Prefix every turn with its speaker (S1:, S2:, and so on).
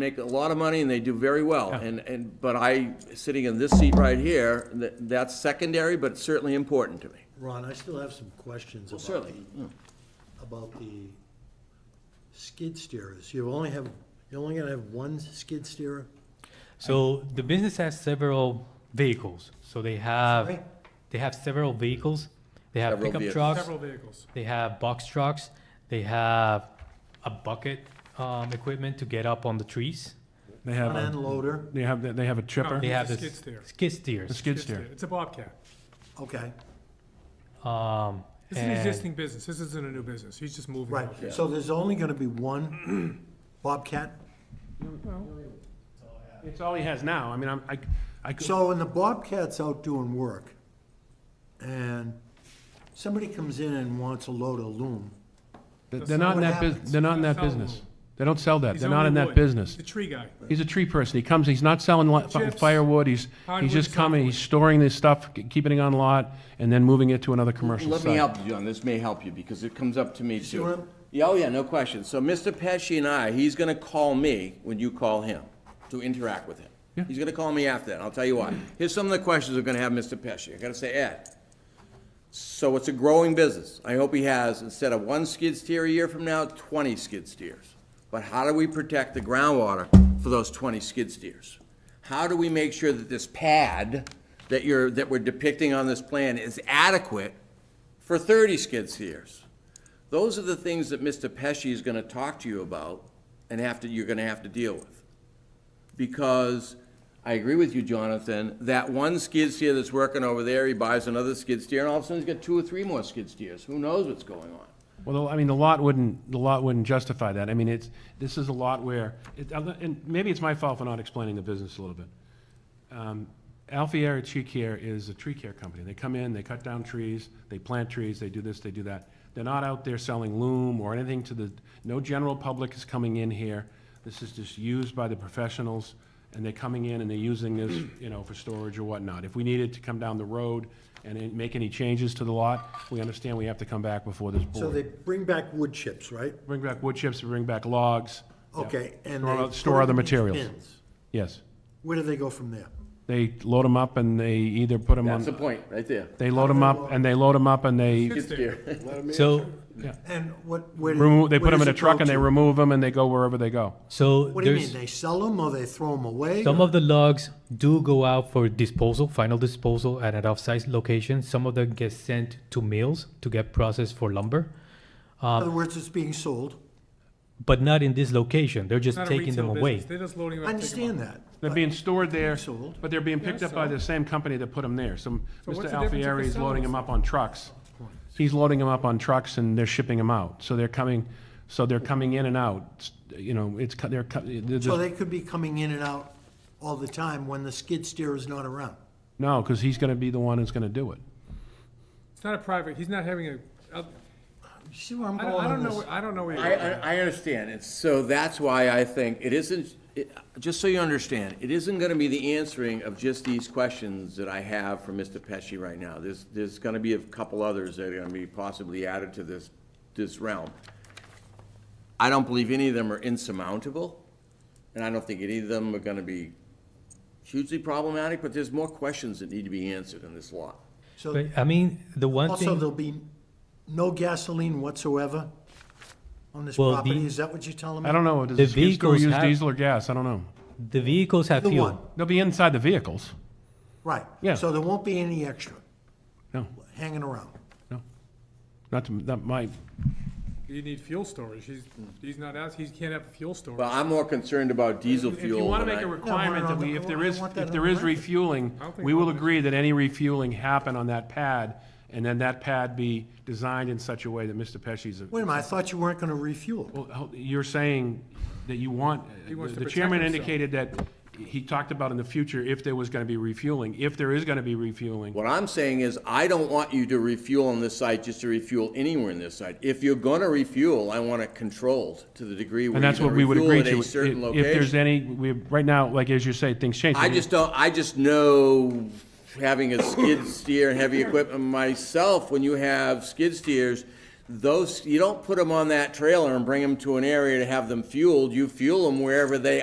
S1: make a lot of money and they do very well.
S2: Yeah.
S1: And, and, but I, sitting in this seat right here, th that's secondary, but certainly important to me.
S3: Ron, I still have some questions about
S1: certainly,
S3: the, about the skid steers. You only have, you're only gonna have one skid steer?
S2: So the business has several vehicles. So they
S3: Sorry?
S2: have, they have several vehicles. They have
S1: Several
S2: pickup
S1: vehicles.
S2: trucks,
S4: Several vehicles.
S2: they have box trucks, they have a bucket, um, equipment to get up on the trees.
S5: They have,
S3: One end
S5: a-
S3: loader,
S5: they have, the- they have a
S4: No,
S5: chipper,
S2: They
S4: it's a
S2: have
S4: skid
S2: this
S4: steer.
S2: skid
S5: a
S2: steers.
S5: skid steer.
S4: It's a Bobcat.
S3: okay,
S2: Um,
S4: It's an
S2: and
S4: existing business. This isn't a new business. He's just moving.
S3: right.
S4: it.
S3: So there's only gonna be one Bobcat?
S5: It's all he has now. I mean, I'm, I, I could,
S3: So when the Bobcat's out doing work, and somebody comes in and wants a load of loom,
S5: they're not in
S3: What
S5: that bus,
S3: happens?
S5: they're not in
S4: That's
S5: that
S4: how it
S5: business.
S4: moves.
S5: They don't sell that.
S4: He's
S5: They're not
S4: only
S5: in that
S4: wood.
S5: business.
S4: The tree guy.
S5: He's a tree person. He comes, he's not selling li- fi-
S4: Chips,
S5: firewood. He's,
S4: hardwood,
S5: he's just coming, he's storing this stuff, k- keeping it on lot, and then moving it to another commercial
S1: Let me
S5: site.
S1: help you, John, this may help you, because it comes up to me
S3: see what
S1: too.
S3: I'm-
S1: Yeah, oh yeah, no question. So Mr. Pesci and I, he's gonna call me when you call him, to interact with him. He's gonna call me after that, and I'll tell you why. Here's some of the questions we're gonna have Mr. Pesci. I gotta say, Ed, so it's a growing business. I hope he has, instead of one skid steer a year from now, twenty skid steers. But how do we protect the groundwater for those twenty skid steers? How do we make sure that this pad that you're, that we're depicting on this plan is adequate for thirty skid steers? Those are the things that Mr. Pesci is gonna talk to you about and have to, you're gonna have to deal with because I agree with you, Jonathan, that one skid steer that's working over there, he buys another skid steer, and all of a sudden he's got two or three more skid steers. Who knows what's going on?
S5: Well, I mean, the lot wouldn't, the lot wouldn't justify that. I mean, it's, this is a lot where, it- uh, and maybe it's my fault for not explaining the business a little bit. Um, Alfieri Tree Care is a tree care company. They come in, they cut down trees, they plant trees, they do this, they do that. They're not out there selling loom or anything to the, no general public is coming in here. This is just used by the professionals, and they're coming in and they're using this, you know, for storage or whatnot. If we needed to come down the road and then make any changes to the lot, we understand we have to come back before this board.
S3: so they bring back wood chips, right?
S5: Bring back wood chips, we bring back logs.
S3: Okay, and
S5: Store
S3: they.
S5: oth- store other
S3: put 'em in these
S5: materials.
S3: bins.
S5: Yes.
S3: Where do they go from there?
S5: They load them up and they either put them
S1: That's the
S5: on,
S1: point, right there.
S5: they load them up and they load them up and they
S1: Skid steer.
S2: so,
S3: And what, where? do-
S5: remove, they
S3: where
S5: put them
S3: does
S5: in a
S3: it go
S5: truck and they
S3: to?
S5: remove them and they go wherever they go.
S2: so
S3: What do you mean,
S2: there's,
S3: they sell them or they throw them away?
S2: some of the logs do go out for disposal, final disposal at an off-site location. Some of them get sent to mills to get processed for lumber.
S3: In other words, it's being sold.
S2: but not in this location. They're just
S4: Not a
S2: taking them
S4: retail
S2: away.
S4: business. They're just loading them
S3: I
S4: up. and taking them
S3: understand
S4: out.
S3: that.
S5: They're being stored there,
S3: sold.
S5: but they're being picked up by the same company that put them there. Some,
S4: So what's
S5: Mr.
S4: the difference if
S5: Alfieri
S4: they
S5: is
S4: sell
S5: loading
S4: those?
S5: them up on trucks. He's loading them up on trucks and they're shipping them out. So they're coming, so they're coming in and out, you know, it's, co- they're, co- they're
S3: So
S5: just,
S3: they could be coming in and out all the time when the skid steer is not around.
S5: no, because he's gonna be the one who's gonna do it.
S4: It's not a private, he's not having a, I
S3: You see where I'm
S4: don't, I
S3: going
S4: don't
S3: with
S4: know,
S3: this?
S4: I don't know where
S1: I,
S4: you're going.
S1: I, I understand, and so that's why I think it isn't, it- just so you understand, it isn't gonna be the answering of just these questions that I have for Mr. Pesci right now. There's, there's gonna be a couple others that are gonna be possibly added to this, this realm. I don't believe any of them are insurmountable, and I don't think any of them are gonna be hugely problematic, but there's more questions that need to be answered in this law.
S3: So
S2: But, I mean, the one
S3: also
S2: thing,
S3: there'll be no gasoline whatsoever on this
S2: Well,
S3: property?
S2: the-
S3: Is that what you're telling me?
S5: I don't know, does
S2: The
S5: the skid steer
S2: vehicles
S5: use
S2: have-
S5: diesel or gas? I don't know.
S2: the vehicles have
S3: The one,
S2: fuel.
S5: They'll be inside the vehicles.
S3: right.
S5: Yeah.
S3: So there won't be any extra
S5: No,
S3: hanging around.
S5: no. Not to, not my,
S4: You need fuel storage. He's, he's not out, he can't have fuel storage.
S1: But I'm more concerned about diesel
S5: if you
S1: fuel
S5: want
S1: than
S5: to make a
S1: I-
S5: requirement that we, if there is,
S3: I want that
S5: if
S3: on
S5: there
S3: the
S5: is
S3: record.
S5: refueling,
S4: I don't think
S5: we
S4: I'll
S5: will
S4: miss
S5: agree that any refueling happen on that pad, and then that pad be designed in such a way that Mr. Pesci's. a-
S3: Wait a minute, I thought you weren't gonna refuel.
S5: Well, hold- You're saying that you want,
S4: He wants to
S5: the
S4: protect
S5: chairman
S4: himself.
S5: indicated that he talked about in the future if there was going to be refueling, if there is going to be refueling.
S1: What I'm saying is, I don't want you to refuel on this site just to refuel anywhere in this site. If you're gonna refuel, I want it controlled to the degree where
S5: And
S1: you're
S5: that's what
S1: gonna
S5: we would agree
S1: refuel at
S5: to.
S1: a
S5: If
S1: certain
S5: if there's
S1: location.
S5: any, we, right now, like as you say, things change.
S1: I just don't, I just know, having a skid steer and heavy equipment myself, when you have skid steers, those, you don't put them on that trailer and bring them to an area to have them fueled, you fuel them wherever they